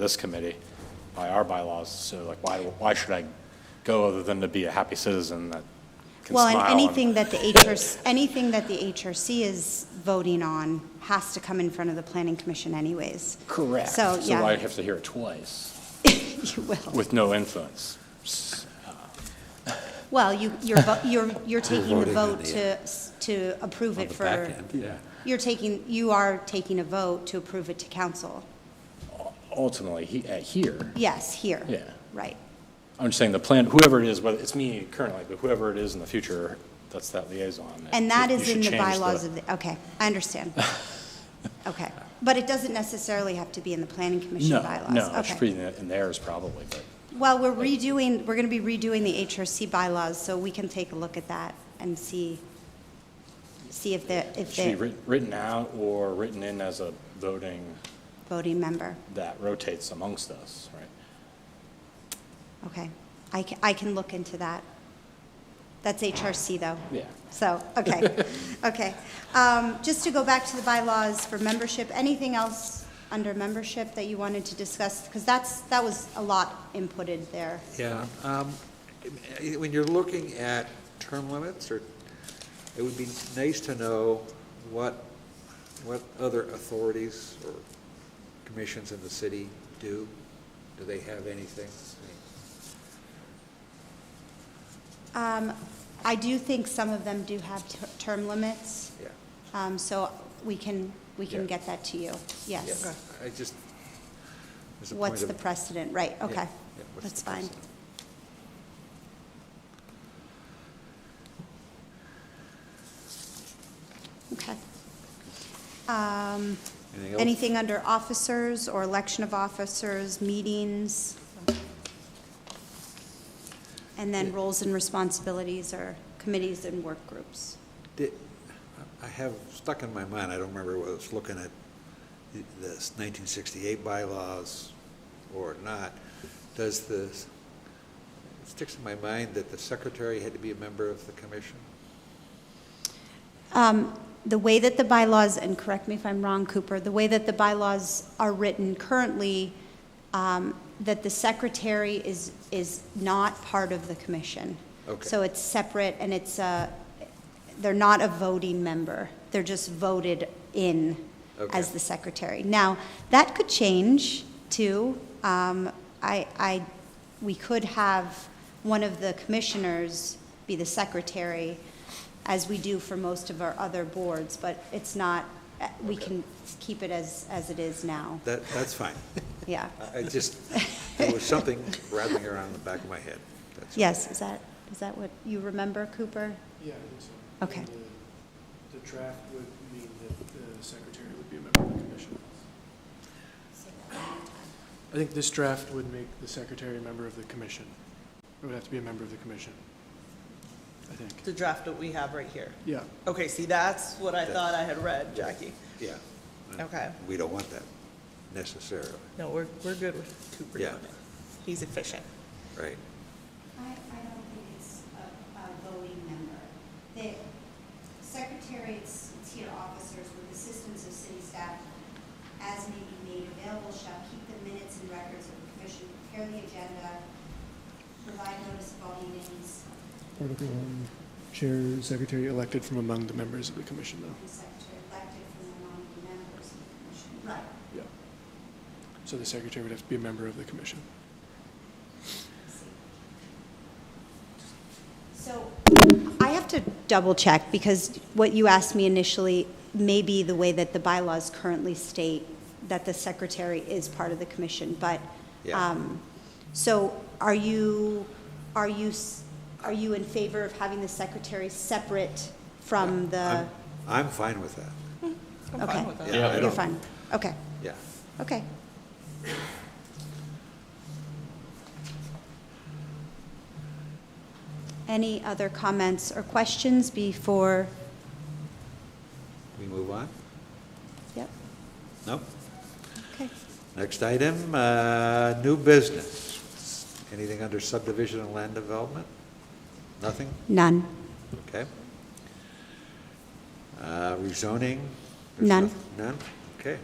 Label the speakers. Speaker 1: this committee by our bylaws, so like, why, why should I go other than to be a happy citizen that can
Speaker 2: Well,
Speaker 1: smile?
Speaker 2: and
Speaker 1: and-
Speaker 2: anything that the HRC, anything that the HRC is voting on has to come in front of the planning commission anyways.
Speaker 1: Correct.
Speaker 2: So,
Speaker 1: So I
Speaker 2: yeah,
Speaker 1: have to hear it twice
Speaker 2: you will.
Speaker 1: with no influence.
Speaker 2: Well, you, you're, vo- you're, you're taking the
Speaker 3: voting on
Speaker 2: vote
Speaker 3: the, uh,
Speaker 2: to, s- to approve
Speaker 3: on
Speaker 2: it
Speaker 3: the back
Speaker 2: for,
Speaker 3: end. Yeah.
Speaker 2: you're taking, you are taking a vote to approve it to council.
Speaker 1: Ultimately, he, uh, here,
Speaker 2: Yes, here.
Speaker 1: Yeah.
Speaker 2: Right.
Speaker 1: I'm just saying the plan, whoever it is, whether it's me currently, but whoever it is in the future, that's that liaison.
Speaker 2: And that
Speaker 1: you
Speaker 2: is
Speaker 1: should
Speaker 2: in the
Speaker 1: change
Speaker 2: bylaws of the, okay, I understand. Okay, but it doesn't necessarily have to be in the planning commission
Speaker 1: No,
Speaker 2: bylaws.
Speaker 1: no, it's
Speaker 2: Okay.
Speaker 1: pretty in- in theirs probably, but
Speaker 2: Well, we're redoing, we're going to be redoing the HRC bylaws, so we can take a look at that and see, see if the,
Speaker 1: it
Speaker 2: if
Speaker 1: should be
Speaker 2: the
Speaker 1: writ- written out or written in as a voting
Speaker 2: voting member,
Speaker 1: that rotates amongst us, right?
Speaker 2: okay. I can, I can look into that. That's HRC, though.
Speaker 1: Yeah.
Speaker 2: So, okay, okay. Um, Just to go back to the bylaws for membership, anything else under membership that you wanted to discuss? Because that's, that was a lot inputted there.
Speaker 3: Yeah, um, eh, when you're looking at term limits, or, it would be nice to know what, what other authorities or commissions in the city do. Do they have anything?
Speaker 2: Um, I do think some of them do have ter- term limits.
Speaker 3: Yeah.
Speaker 2: Um, So we can, we can
Speaker 3: Yeah.
Speaker 2: get that to you,
Speaker 3: Yeah,
Speaker 2: yes.
Speaker 3: I just, there's a point
Speaker 2: What's the
Speaker 3: of-
Speaker 2: precedent, right,
Speaker 3: yeah,
Speaker 2: okay,
Speaker 3: yeah, what's
Speaker 2: that's
Speaker 3: the
Speaker 2: fine.
Speaker 3: precedent?
Speaker 2: Okay. Um,
Speaker 3: Anything else?
Speaker 2: Anything under officers or election of officers, meetings? And then roles and responsibilities or committees and work groups.
Speaker 3: Did, I have stuck in my mind, I don't remember whether it's looking at the- this 1968 bylaws or not, does the, it sticks in my mind that the secretary had to be a member of the commission?
Speaker 2: Um, The way that the bylaws, and correct me if I'm wrong, Cooper, the way that the bylaws are written currently, um, that the secretary is, is not part of the commission.
Speaker 3: Okay.
Speaker 2: So it's separate, and it's, uh, they're not a voting member. They're just voted in as
Speaker 3: Okay.
Speaker 2: the secretary. Now, that could change, too. Um, I, I, we could have one of the commissioners be the secretary, as we do for most of our other boards, but it's not, uh, we can keep it as, as it is now.
Speaker 3: That, that's fine.
Speaker 2: Yeah.
Speaker 3: I I just, there was something rattling around in the back of my head. That's-
Speaker 2: Yes, is that, is that what you remember, Cooper?
Speaker 4: Yeah, I think so.
Speaker 2: Okay.
Speaker 4: And the- The draft would mean that the secretary would be a member of the commission. I think this draft would make the secretary a member of the commission. It would have to be a member of the commission, I think.
Speaker 5: The draft that we have right here.
Speaker 4: Yeah,
Speaker 5: Okay, see, that's what I
Speaker 3: That's-
Speaker 5: thought I had read, Jackie.
Speaker 3: Yeah.
Speaker 5: Okay.
Speaker 3: We don't want that necessarily,
Speaker 5: No, we're, we're good with Cooper doing
Speaker 3: Yeah.
Speaker 5: it. He's efficient.
Speaker 3: right?
Speaker 2: I, I don't think it's a, a voting member. The secretary, it's tier officers with assistance of city staff, as may be made available, shall keep the minutes and records of the commission, prepare the agenda, provide notice of all meetings,
Speaker 4: Article one, chair, secretary elected from among the members of the commission, though.
Speaker 2: and secretary elected from among the members of the commission. Right.
Speaker 4: Yeah. So the secretary would have to be a member of the commission.
Speaker 2: So I have to double check because what you asked me initially may be the way that the bylaws currently state that the secretary is part of the commission, but,
Speaker 3: Yeah.
Speaker 2: um, so are you, are you, s- are you in favor of having the secretary separate from the?
Speaker 3: I'm- I'm fine with that.
Speaker 5: I'm fine
Speaker 2: Okay.
Speaker 5: with
Speaker 3: Yeah, I
Speaker 5: that.
Speaker 2: You're
Speaker 3: don't-
Speaker 2: fine, okay,
Speaker 3: Yeah.
Speaker 2: okay. Any other comments or questions before,
Speaker 3: We move on?
Speaker 2: yep,
Speaker 3: No?
Speaker 2: okay.
Speaker 3: Next item, uh, new business. Anything under subdivision and land development? Nothing?
Speaker 2: None.
Speaker 3: Okay. Uh, Rezoning? There's
Speaker 2: None.
Speaker 3: noth- None? Okay.